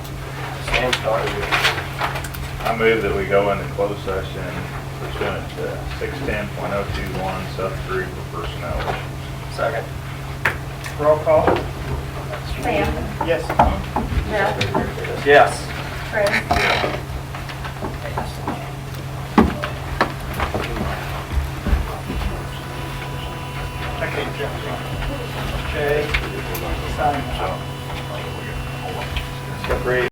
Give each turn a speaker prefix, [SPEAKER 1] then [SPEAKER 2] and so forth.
[SPEAKER 1] We'll start with- I move that we go into closed session pursuant to six ten point oh two one, sub three for personnel.
[SPEAKER 2] Second. Roll call?
[SPEAKER 3] Sam,
[SPEAKER 2] Yes.
[SPEAKER 3] Jeff,
[SPEAKER 2] Yes.
[SPEAKER 3] Chris.
[SPEAKER 2] Okay, Jeff. Okay. Sign.
[SPEAKER 1] Agreed.